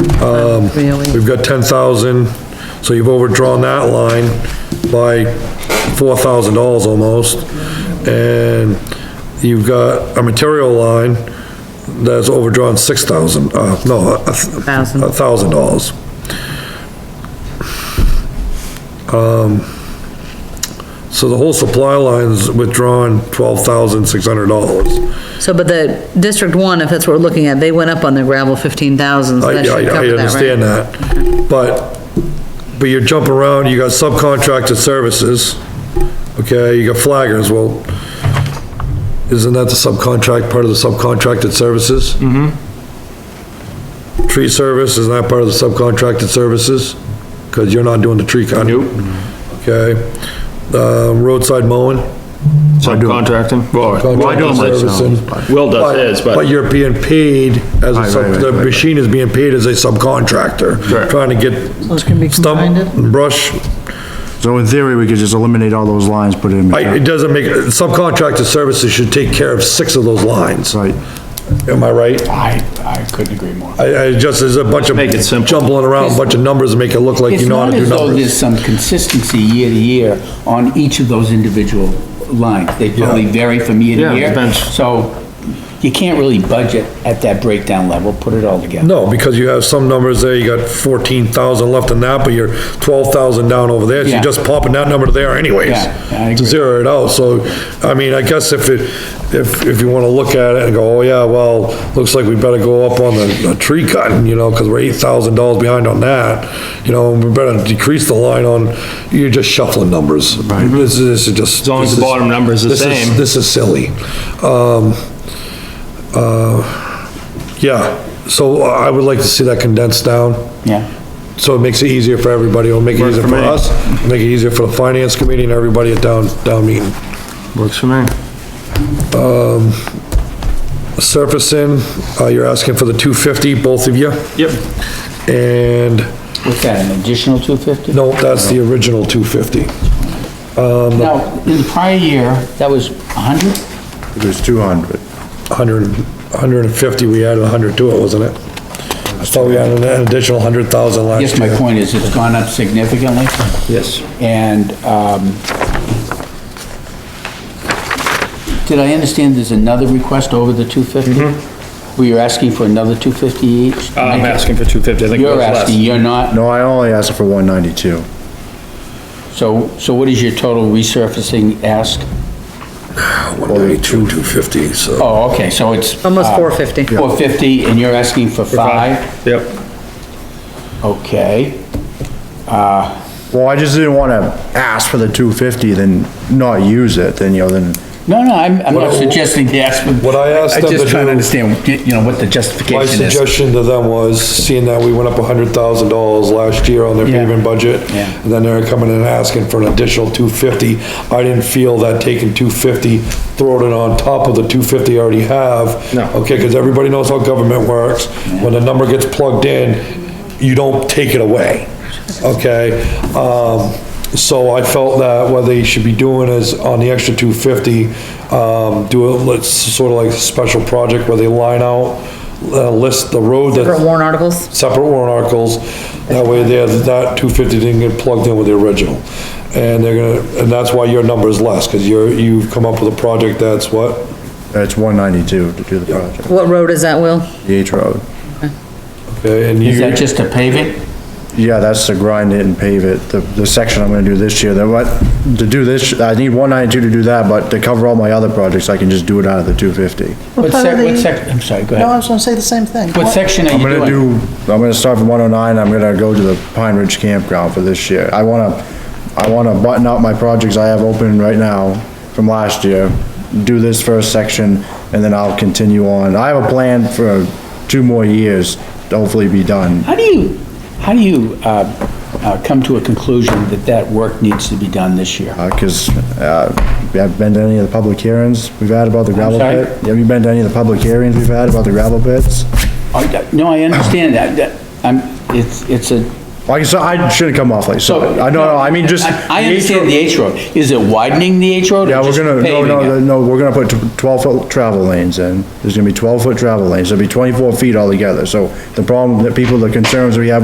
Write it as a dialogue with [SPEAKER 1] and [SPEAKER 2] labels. [SPEAKER 1] Really?
[SPEAKER 2] Um, We've got ten thousand, so you've overdrawn that line by four thousand dollars almost. And you've got a material line that's overdrawn six thousand, uh, no, a
[SPEAKER 1] Thousand.
[SPEAKER 2] thousand dollars. Um, So the whole supply line's withdrawn twelve thousand six hundred dollars.
[SPEAKER 1] So, but the District One, if that's what we're looking at, they went up on their gravel fifteen thousand, so
[SPEAKER 2] I,
[SPEAKER 1] that should
[SPEAKER 2] I- I
[SPEAKER 1] cover that,
[SPEAKER 2] understand
[SPEAKER 1] right?
[SPEAKER 2] that, but, but you're jumping around, you got subcontracted services, okay, you got flaggers, well, isn't that the subcontract, part of the subcontracted services? Mm-hmm. Tree service, isn't that part of the subcontracted services? Because you're not doing the tree con.
[SPEAKER 3] Nope.
[SPEAKER 2] Okay, um, roadside mowing.
[SPEAKER 3] Subcontracting? Well, well, I do them
[SPEAKER 2] contractor servicing.
[SPEAKER 3] myself. Will does his,
[SPEAKER 2] But
[SPEAKER 3] but
[SPEAKER 2] you're being paid as a,
[SPEAKER 3] Right,
[SPEAKER 2] sub-
[SPEAKER 3] right, right,
[SPEAKER 2] the
[SPEAKER 3] right, right.
[SPEAKER 2] machine is being paid as a subcontractor.
[SPEAKER 3] Correct.
[SPEAKER 2] Trying to get
[SPEAKER 4] So it's gonna be combined
[SPEAKER 2] stump,
[SPEAKER 4] in?
[SPEAKER 2] and brush,
[SPEAKER 5] So in theory, we could just eliminate all those lines, put it in.
[SPEAKER 2] I, it doesn't make, subcontractor services should take care of six of those lines.
[SPEAKER 5] Right.
[SPEAKER 2] Am I right?
[SPEAKER 3] I, I couldn't agree more.
[SPEAKER 2] I, I just, there's a bunch of
[SPEAKER 3] Make it simple.
[SPEAKER 2] jumbling around, a bunch of numbers and make it look like
[SPEAKER 6] It's
[SPEAKER 2] you know how
[SPEAKER 6] not
[SPEAKER 2] to do
[SPEAKER 6] as though there's
[SPEAKER 2] numbers.
[SPEAKER 6] some consistency year to year on each of those individual lines. They probably vary from year
[SPEAKER 3] Yeah,
[SPEAKER 6] to year.
[SPEAKER 3] depends.
[SPEAKER 6] So you can't really budget at that breakdown level, put it all together.
[SPEAKER 2] No, because you have some numbers there, you got fourteen thousand left in that, but you're twelve thousand down over there, so you're
[SPEAKER 6] Yeah.
[SPEAKER 2] just popping that number there anyways.
[SPEAKER 6] Yeah, I
[SPEAKER 2] To
[SPEAKER 6] agree.
[SPEAKER 2] zero it out, so, I mean, I guess if it, if, if you wanna look at it and go, oh yeah, well, looks like we better go up on the, the tree cutting, you know, cause we're eight thousand dollars behind on that. You know, we better decrease the line on, you're just shuffling numbers. Right. This is, this is just.
[SPEAKER 3] As long as the
[SPEAKER 2] this is-
[SPEAKER 3] bottom number's the
[SPEAKER 2] this is-
[SPEAKER 3] same.
[SPEAKER 2] This is silly. Um, uh, yeah, so I would like to see that condensed down,
[SPEAKER 6] Yeah.
[SPEAKER 2] so it makes it easier for everybody, it'll make it
[SPEAKER 3] Works
[SPEAKER 2] easier
[SPEAKER 3] for
[SPEAKER 2] for
[SPEAKER 3] me.
[SPEAKER 2] us, make it easier for the finance committee and everybody at down, down meeting.
[SPEAKER 3] Works for me.
[SPEAKER 2] Surfacing, uh, you're asking for the two fifty, both of you,
[SPEAKER 3] Yep.
[SPEAKER 2] and,
[SPEAKER 6] What's that, an additional 250?
[SPEAKER 2] no, that's the original two fifty.
[SPEAKER 6] Now, in the prior year, that was 100?
[SPEAKER 5] It was 200.
[SPEAKER 2] Hundred, hundred and fifty, we added a hundred to it, wasn't it? I thought we added an additional hundred thousand last year.
[SPEAKER 6] Yes, my point is, it's gone up significantly. Yes. And, um, did I understand there's another request over the 250? Were you asking for another 250 each?
[SPEAKER 3] I'm asking for 250, I think it was
[SPEAKER 6] You're
[SPEAKER 3] less.
[SPEAKER 6] asking, you're not,
[SPEAKER 5] No, I only asked for 192.
[SPEAKER 6] so, so what is your total resurfacing ask?
[SPEAKER 2] One ninety-two, two fifty, so.
[SPEAKER 6] Oh, okay, so it's.
[SPEAKER 1] Almost
[SPEAKER 6] uh,
[SPEAKER 1] four fifty.
[SPEAKER 6] 450, and you're asking for five?
[SPEAKER 3] Yep.
[SPEAKER 6] Okay.
[SPEAKER 5] Well, I just didn't wanna ask for the 250, then not use it, then, you know, then.
[SPEAKER 6] No, no, I'm, I'm not
[SPEAKER 2] What I-
[SPEAKER 6] suggesting the ask. but
[SPEAKER 2] What I asked them
[SPEAKER 6] I'm
[SPEAKER 2] to
[SPEAKER 6] just trying
[SPEAKER 2] do-
[SPEAKER 6] to understand, you know, what the justification
[SPEAKER 2] My
[SPEAKER 6] is.
[SPEAKER 2] suggestion to them was, seeing that we went up hundred thousand dollars last year on their
[SPEAKER 6] Yeah.
[SPEAKER 2] paving budget,
[SPEAKER 6] Yeah.
[SPEAKER 2] and then they're coming in and asking for an additional two fifty, I didn't feel that taking two fifty, throwing it on top of the two fifty I already have.
[SPEAKER 3] No.
[SPEAKER 2] Okay, because everybody knows how government works, when the number gets plugged in, you don't take it away, okay? Um, so I felt that what they should be doing is on the extra two fifty, um, do a, let's sort of like a special project where they line out, uh, list the road that.
[SPEAKER 1] For warrant articles?
[SPEAKER 2] Separate warrant articles, that way there, that two fifty didn't get plugged in with the original. And they're gonna, and that's why your number is less, cause you're, you've come up with a project that's what?
[SPEAKER 5] It's 192 to do the project,
[SPEAKER 1] What road is that, Will?
[SPEAKER 5] the H road.
[SPEAKER 2] Okay, and
[SPEAKER 6] Is
[SPEAKER 2] you,
[SPEAKER 6] that just a paving?
[SPEAKER 5] Yeah, that's to grind it and pave it, the, the section I'm gonna do this year, that what, to do this, I need 192 to do that, but to cover all my other projects, I can just do it out of the 250.
[SPEAKER 6] What
[SPEAKER 4] part
[SPEAKER 6] sec,
[SPEAKER 4] of
[SPEAKER 6] what
[SPEAKER 4] the-
[SPEAKER 6] sec, I'm sorry, go
[SPEAKER 4] No, I
[SPEAKER 6] ahead.
[SPEAKER 4] was gonna say the same thing.
[SPEAKER 6] What
[SPEAKER 4] What-
[SPEAKER 6] section are
[SPEAKER 5] I'm
[SPEAKER 6] you
[SPEAKER 5] gonna
[SPEAKER 6] doing?
[SPEAKER 5] do, I'm gonna start from 109, I'm gonna go to the Pine Ridge Campground for this year. I wanna, I wanna button up my projects I have open right now from last year, do this first section, and then I'll continue on. I have a plan for two more years to hopefully be done.
[SPEAKER 6] How do you, how do you, uh, uh, come to a conclusion that that work needs to be done this year?
[SPEAKER 5] Uh 'cause cause, uh, you haven't been to any of the public hearings we've had about the gravel
[SPEAKER 6] sorry?
[SPEAKER 5] pit? Have you been to any of the public hearings we've had about the gravel pits?
[SPEAKER 6] Oh, yeah, No, I understand that, that, I'm, it's, it's a,
[SPEAKER 5] Like I said, I shouldn't come off like, so, I no, no, I mean, just.
[SPEAKER 6] I I
[SPEAKER 5] the H
[SPEAKER 6] understand
[SPEAKER 5] road-
[SPEAKER 6] the H road. Is it widening the H road
[SPEAKER 5] Yeah,
[SPEAKER 6] or
[SPEAKER 5] we're
[SPEAKER 6] just
[SPEAKER 5] gonna, no,
[SPEAKER 6] paving
[SPEAKER 5] no,
[SPEAKER 6] it?
[SPEAKER 5] no, we're gonna put twelve foot travel lanes in. There's gonna be twelve foot travel lanes. There'll be twenty-four feet altogether. So the problem, that people, the concerns we have